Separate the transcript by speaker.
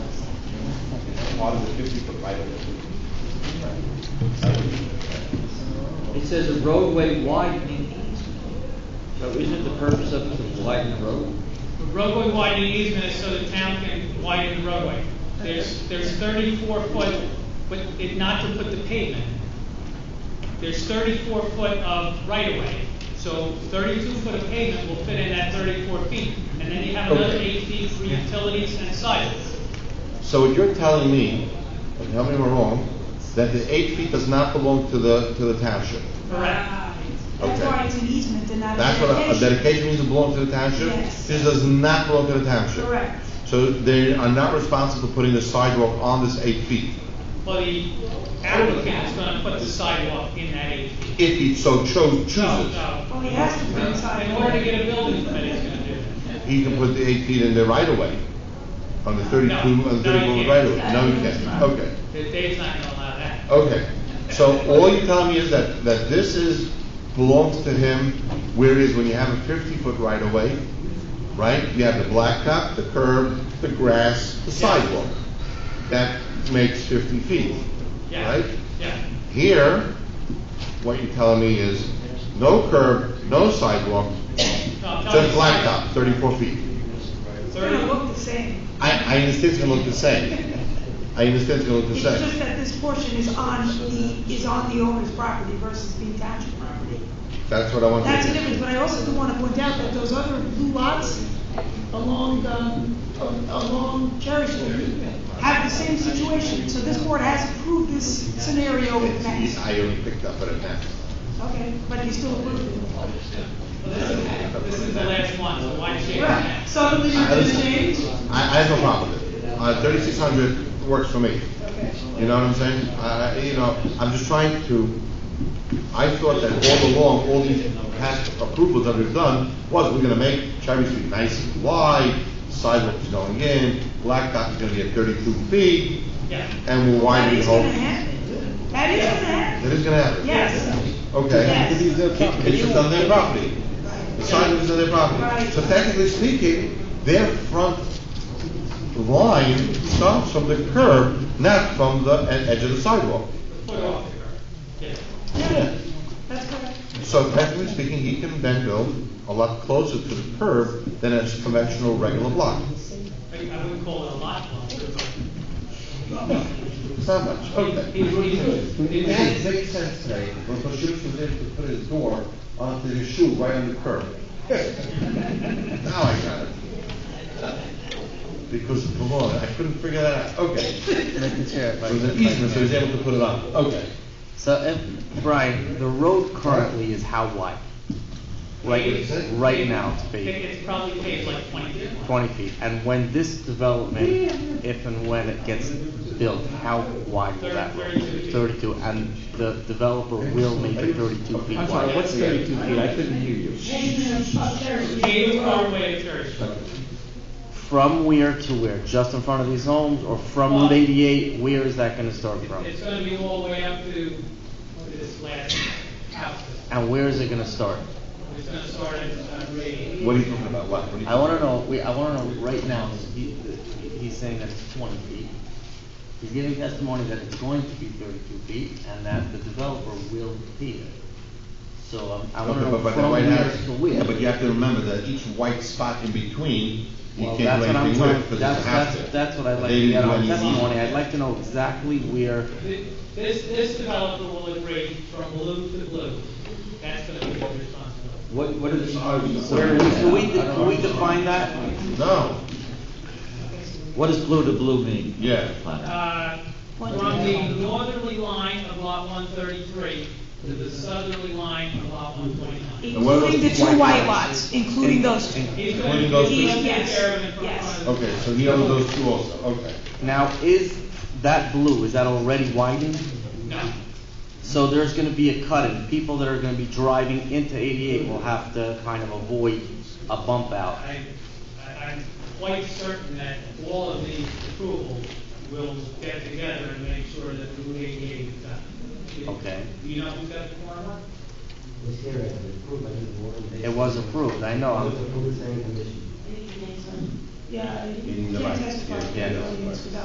Speaker 1: part of the fifty-foot right of way.
Speaker 2: It says a roadway widening easement. So isn't the purpose of it to widen the road?
Speaker 3: The roadway widening easement is so the town can widen the roadway. There's, there's thirty-four foot, but it, not to put the pavement. There's thirty-four foot of right-of-way, so thirty-two foot of pavement will fit in that thirty-four feet. And then you have another
Speaker 1: Okay.
Speaker 3: eight feet for utilities and sidewalks.
Speaker 1: So what you're telling me, and tell me if I'm wrong, that the eight feet does not belong to the, to the township?
Speaker 3: Correct.
Speaker 4: That's
Speaker 1: Okay.
Speaker 4: why it's an easement and not a
Speaker 1: That's what, a- a
Speaker 4: dedication.
Speaker 1: dedication means it belongs to the township?
Speaker 4: Yes.
Speaker 1: This does not belong to the township?
Speaker 4: Correct.
Speaker 1: So they are not responsible for putting the sidewalk on this eight feet,
Speaker 3: But the applicant is gonna put the sidewalk in that eight feet.
Speaker 1: if he so chose,
Speaker 3: No,
Speaker 1: chooses.
Speaker 3: no.
Speaker 4: Well, he has to put inside.
Speaker 3: In order to get a building permit, he's gonna do that.
Speaker 1: He can put the eight feet in the right of way, on the thirty-two, on the
Speaker 3: No, no, you
Speaker 1: thirty-one
Speaker 3: can't.
Speaker 1: right of way. No, you can't, okay,
Speaker 3: Dave's not gonna allow that.
Speaker 1: okay. So all you're telling me is that, that this is, belongs to him, where it is when you have a fifty-foot right of way, right? You have the blacktop, the curb, the grass, the sidewalk. That makes fifty feet,
Speaker 3: Yeah.
Speaker 1: right?
Speaker 3: Yeah,
Speaker 1: Here, what you're telling me is, no curb, no sidewalk,
Speaker 3: no, I'm telling
Speaker 1: just
Speaker 3: you.
Speaker 1: blacktop, thirty-four feet.
Speaker 4: It's gonna
Speaker 3: Thirty,
Speaker 4: look the same.
Speaker 1: I, I understand it's gonna look the same. I understand it's gonna look the
Speaker 4: It's just
Speaker 1: same.
Speaker 4: that this portion is on the, is on the owner's property versus being township property.
Speaker 1: That's what I want
Speaker 4: That's the
Speaker 1: to do.
Speaker 4: difference, but I also do wanna point out that those other blue lots along, um, along Cherry Street have the same situation, so this board has approved this scenario with
Speaker 1: It's-
Speaker 4: Mass.
Speaker 1: I only picked up on a map.
Speaker 4: Okay, but he still approved it.
Speaker 3: well, this is, this is the last one, so why change
Speaker 4: Right,
Speaker 3: that?
Speaker 4: so did you just change?
Speaker 1: I, I have no problem with it. Uh, thirty-six hundred works for me. You know what I'm saying? I, I- you know, I'm just trying to, I thought that all along, all these past approvals that we've done was we're gonna make Cherry Street nice and wide, sidewalks going in, blacktop is gonna be at thirty-two feet,
Speaker 3: Yeah,
Speaker 1: and we'll
Speaker 4: That
Speaker 1: widen the
Speaker 4: is
Speaker 1: whole.
Speaker 4: gonna happen. That is gonna happen,
Speaker 1: That is gonna happen.
Speaker 4: yes,
Speaker 1: Okay.
Speaker 4: Yes.
Speaker 1: It's it's on their property. The sidewalk is on their property.
Speaker 4: Right.
Speaker 1: So technically speaking, their front line starts from the curb, not from the e- edge of the sidewalk.
Speaker 3: put it off. Yeah.
Speaker 4: that's correct.
Speaker 1: So technically speaking, he can then build a lot closer to the curb than a conventional regular block.
Speaker 3: I I wouldn't call it a lot, but
Speaker 1: It's not much, okay. It makes makes sense today, because Pashuk was able to put his door onto his shoe right on the curb. Now I got it. Because of Pomona, I couldn't figure that out, okay.
Speaker 5: Mr. Chair, if I
Speaker 1: So
Speaker 5: could-
Speaker 1: the easement, so he's able to put it on, okay.
Speaker 5: So, if, Brian, the road currently is how wide? Right, right now, it's
Speaker 3: I think
Speaker 5: paved
Speaker 3: it's probably paved like twenty feet.
Speaker 5: twenty feet, and when this development, if and when it gets built, how wide will that
Speaker 3: Thirty- 32.
Speaker 5: be? Thirty-two, and the developer will make it thirty-two feet
Speaker 6: I'm sorry,
Speaker 5: wide.
Speaker 6: what's thirty-two feet? I couldn't hear you.
Speaker 3: Paved all the way to Church Street.
Speaker 5: From where to where? Just in front of these homes, or from Route eighty-eight, where is that gonna start from?
Speaker 3: It's gonna be all the way up to this last house.
Speaker 5: And where is it gonna start?
Speaker 3: It's gonna start at, uh, grade.
Speaker 1: What are you talking about, what? What are you
Speaker 5: I wanna
Speaker 1: talking
Speaker 5: know, we, I wanna know right now, he, he's saying that it's twenty feet. He's giving testimony that it's going to be thirty-two feet, and that the developer will be there. So, um, I
Speaker 1: about?
Speaker 5: wanna
Speaker 1: Okay,
Speaker 5: know
Speaker 1: but- but
Speaker 5: from
Speaker 1: the White
Speaker 5: where
Speaker 1: House-
Speaker 5: to
Speaker 1: Yeah, but you
Speaker 5: where.
Speaker 1: have to remember that each white spot in between, you
Speaker 5: Well,
Speaker 1: can't do
Speaker 5: that's what I'm
Speaker 1: anything with,
Speaker 5: trying,
Speaker 1: because
Speaker 5: that's,
Speaker 1: it's a house
Speaker 5: that's,
Speaker 1: there.
Speaker 5: that's what I'd like
Speaker 1: They
Speaker 5: to get
Speaker 1: didn't do
Speaker 5: on
Speaker 1: any easement.
Speaker 5: testimony, I'd like to know exactly where,
Speaker 3: Th- This, this developer will agree from blue to blue. That's gonna be his responsibility.
Speaker 6: What, what is, are we?
Speaker 5: where, can we, can we define that?
Speaker 1: No,
Speaker 6: What does blue to blue mean?
Speaker 1: yeah.
Speaker 3: Uh, from the northerly line of lot one thirty-three to the southerly line of lot one twenty-nine.
Speaker 1: And what are those
Speaker 4: Including the two
Speaker 1: white
Speaker 4: white
Speaker 1: lots?
Speaker 4: lots, including those two.
Speaker 3: He's
Speaker 1: When
Speaker 3: going
Speaker 1: you
Speaker 3: to
Speaker 1: go
Speaker 3: he's
Speaker 4: through-
Speaker 3: gonna take care of it in front
Speaker 4: Yes,
Speaker 3: of.
Speaker 1: Okay, so he owns those two also, okay.
Speaker 5: Now, is that blue, is that already widened?
Speaker 3: No,
Speaker 5: So there's gonna be a cut in, people that are gonna be driving into eighty-eight will have to kind of avoid a bump out.
Speaker 3: I, I- I'm quite certain that all of these approvals will get together and make sure that Route eighty-eight is done. Do-
Speaker 5: Okay.
Speaker 3: Do you know who's got the former?
Speaker 5: It was approved, I know, I'm-
Speaker 4: yeah, you
Speaker 1: In the
Speaker 4: can't
Speaker 1: right,
Speaker 4: testify.
Speaker 1: yeah,
Speaker 4: to
Speaker 1: yeah,
Speaker 4: those
Speaker 1: no, right.
Speaker 4: without